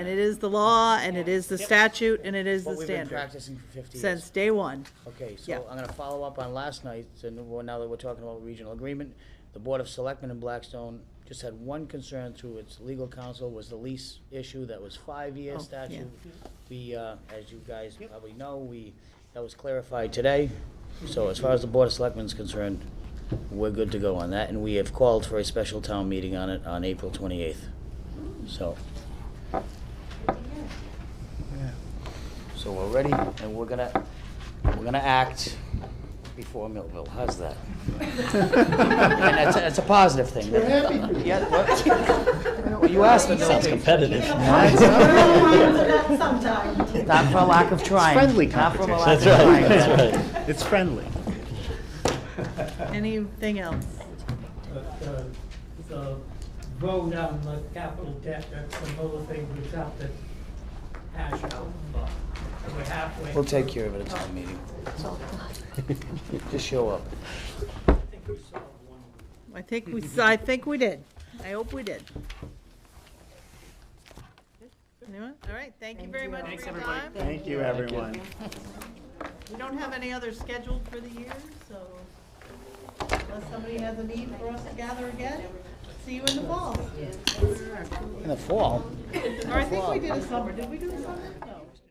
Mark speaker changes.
Speaker 1: And it is the law, and it is the
Speaker 2: Yep.
Speaker 1: statute, and it is the
Speaker 2: What we've been
Speaker 1: standard,
Speaker 2: practicing for fifty years.
Speaker 1: since day one.
Speaker 2: Okay,
Speaker 1: Yeah.
Speaker 2: so I'm gonna follow up on last night, and we're- now that we're talking about regional agreement, the Board of Selectmen in Blackstone just had one concern through its legal counsel, was the lease issue, that was five-year
Speaker 1: Oh, yeah.
Speaker 2: statute. We, uh, as you guys probably know, we, that was clarified today, so as far as the Board of Selectmen's concerned, we're good to go on that, and we have called for a special town meeting on it on April twenty-eighth, so. So we're ready, and we're gonna, we're gonna act before Millville, how's that? And that's, that's a positive thing. We're happy Yeah, what- you asked for
Speaker 3: Sounds
Speaker 2: something.
Speaker 3: competitive.
Speaker 2: Not for a lack of trying.
Speaker 3: friendly
Speaker 2: Not for a lack of
Speaker 3: That's right,
Speaker 2: trying.
Speaker 3: that's right. It's friendly.
Speaker 1: Anything else?
Speaker 4: But uh, the vote on the capital debt, that's another thing we just have to hash out. but We're halfway.
Speaker 2: We'll take care of it at town meeting. Just show up.
Speaker 4: I think we solved one.
Speaker 1: I think we, s- I think we did. I hope we did. Anyone? All right, thank you very much for your time.
Speaker 3: Thank you, everyone.
Speaker 1: We don't have any other scheduled for the year, so unless somebody has a need for us to gather again, see you in the fall.
Speaker 2: In the fall?
Speaker 1: Or I think we did a summer. Did we do a summer?